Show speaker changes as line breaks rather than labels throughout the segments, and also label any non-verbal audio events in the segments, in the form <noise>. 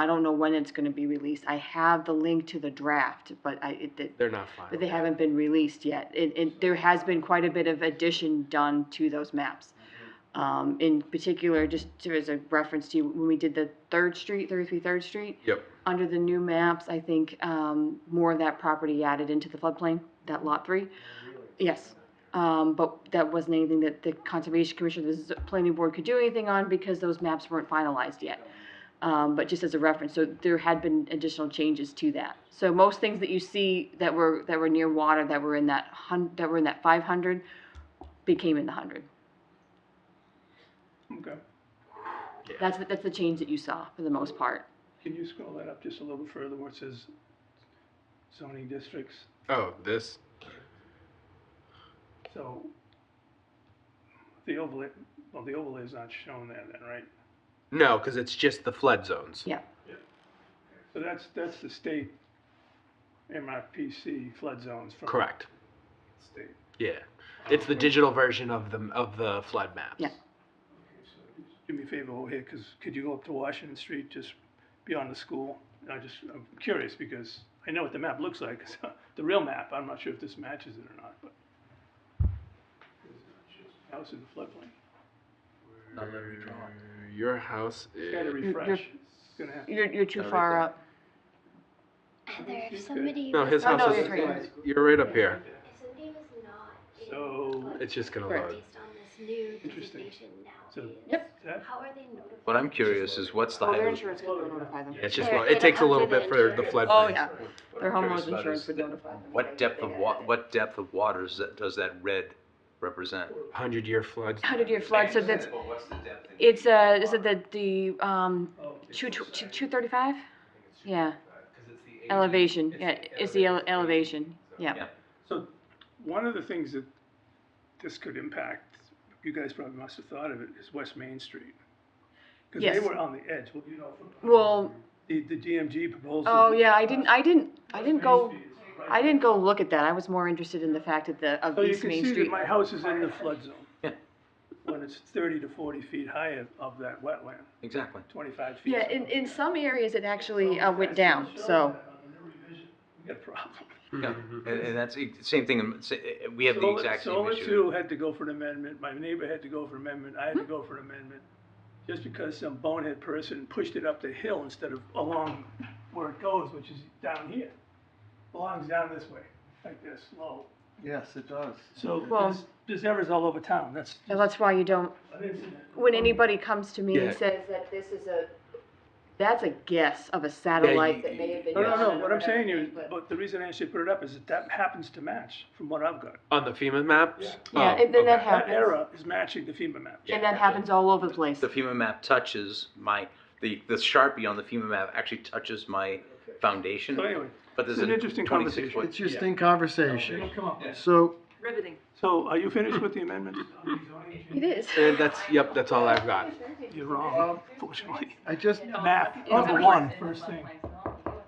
I don't know when it's gonna be released. I have the link to the draft, but I, it, it-
They're not filed.
but they haven't been released yet. It, it, there has been quite a bit of addition done to those maps. Um, in particular, just to, as a reference to you, when we did the Third Street, thirty-three Third Street,
Yep,
under the new maps, I think, um, more of that property added into the floodplain, that lot three. Yes, um, but that wasn't anything that the Conservation Commission, the Z- Planning Board could do anything on because those maps weren't finalized yet. Um, but just as a reference, so there had been additional changes to that. So most things that you see that were, that were near water, that were in that hun, that were in that five hundred, became in the hundred.
Okay,
That's, the- that's the change that you saw for the most part.
can you scroll that up just a little further where it says zoning districts?
oh, this,
So the overlay, well, the overlay is not shown there then, right?
no, cause it's just the flood zones.
Yeah,
So that's, that's the state MRPC flood zones from.
Correct,
the State.
yeah, it's the digital version of the, of the flood maps.
Yeah.
Do me a favor over here, cause could you go up to Washington Street, just beyond the school? I just, I'm curious because I know what the map looks like, <laughs> the real map, I'm not sure if this matches it or not, but. House in the floodplain.
Not that redrawn.
Your house
It's gotta
is,
refresh. It's gonna have-
you're, you're too
Right
far
there.
up.
Heather,
She's
if
good.
somebody.
no,
was-
his
Oh, no,
house
you're
is,
great.
you're right up here,
If somebody was not. in
So-
flood
it's just gonna
Correct.
load.
Based on this new
Interesting.
designation
So-
nowadays.
Yep.
Is that-
How are they notified?
What I'm curious is what's the
Well, their
highway?
insurance company would notify them.
It's just,
They're-
lo- it
they're
takes a little
under
bit for the
insurance.
flood.
Oh,
plains.
yeah, their
I'm curious
homeowners
about
insurance
is
would
the-
notify them.
What depth of wa, what depth of water is that, does that red represent?
Hundred
<laughs>
year floods,
Hundred-year flood, so that's,
what's the depth?
it's, uh, is it the, the, um,
Oh, okay.
two, two, two thirty-five? Yeah,
Cause it's the.
elevation, yeah, it's the ele- elevation, yeah.
Yeah.
So, one of the things that this could impact, you guys probably must have thought of it, is West Main Street. Because they
Yes.
were on the edge, well, you know, from
Well,
the, the DMG proposal.
oh, yeah, I didn't, I didn't, I didn't
Main
go,
Street is right
I didn't go look at that, I was more interested in the fact that the, of
So you
East
can
Main
see that
Street.
my house is in the flood zone.
Yeah.
When it's thirty to forty feet high of that wetland,
Exactly.
twenty-five feet.
Yeah, in, in some areas it actually, uh, went down, so,
We got a problem.
Yeah, and, and that's the same thing, um, sa- eh, we have the
Solar-
exact same
Solar
issue. Hmm.
two had to go for an amendment, my neighbor had to go for an amendment, I had to go for an amendment. Just because some bonehead person pushed it up the hill instead of along where it goes, which is down here. Belongs down this way, like this, low.
Yes, it does.
So
Well-
there's, there's errors all over town, that's.
and that's why you don't,
an incident.
when anybody comes to me
Yeah.
and says that this is a, that's a guess of a satellite that may have been.
No, no,
done
no,
or
what I'm
whatever,
saying is,
but-
but the reason I actually put it up is that that happens to match from what I've got.
on the FEMA maps?
Yeah,
Oh,
and then that
okay.
That
happens.
error is matching the FEMA map.
And that happens all over the place.
The FEMA map touches my, the, the Sharpie on the FEMA map actually touches my foundation,
So anyway,
but there's
it's an
a
interesting
twenty-six
conversation.
foot.
It's just
Yeah.
in conversation.
It'll come up.
So,
So are you finished with the amendment?
It is.
And that's, yep, that's all I've got.
You're wrong, unfortunately.
I just,
Map, number one, first thing.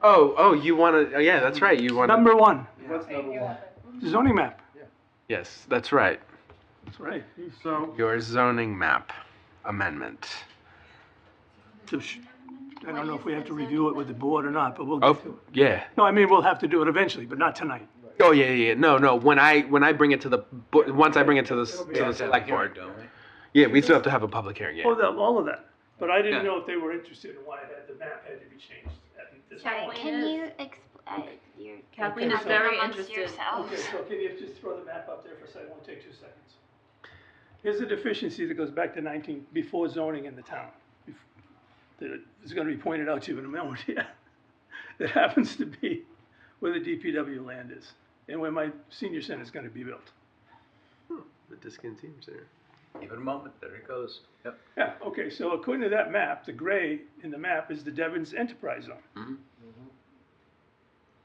Oh, oh, you wanna, oh, yeah, that's right, you wanna,
Number one,
what's number one?
zoning map.
yes, that's right.
That's right.
So,
Your zoning map amendment.
So sh- I don't know if we have to review it with the board or not, but we'll,
Oh,
no,
yeah.
I mean, we'll have to do it eventually, but not tonight.
Oh, yeah, yeah, yeah. no, no, when I, when I bring it to the, bo- once I bring it to the, s- to the select board. Yeah, we still have to have a public hearing,
Oh,
yeah.
that, all of that. But I didn't
Yeah.
know if they were interested in why it had, the map had to be changed at this
Sorry,
point.
can
is-
you expl- uh, you're.
Kathleen
is
you're
very
amongst
interested.
yourselves.
Okay, so can you just throw the map up there for a second? It won't take two seconds. Here's a deficiency that goes back to nineteen, before zoning in the town. bef- That is gonna be pointed out to you in a moment <laughs> here. That happens to be where the DPW land is and where my senior center is gonna be built.
The discontinues there.
Give it a moment, there it goes. Yep.
Yeah, okay, so according to that map, the gray in the map is the Devon's enterprise zone.
Mhm.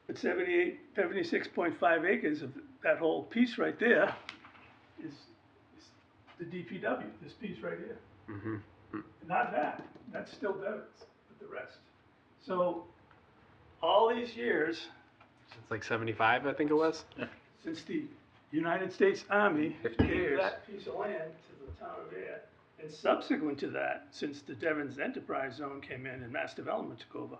But 78, 76.5 acres of that whole piece right there is, is the DPW, this piece right here.
Mm-hmm.
Not that, that's still Devon's, but the rest. So, all these years,
It's like seventy-five, I think it was.
since the United States Army
50
gave
years.
that piece of land to the town of Air. And subsequent to that, since the Devon's Enterprise Zone came in and Mass Development took over,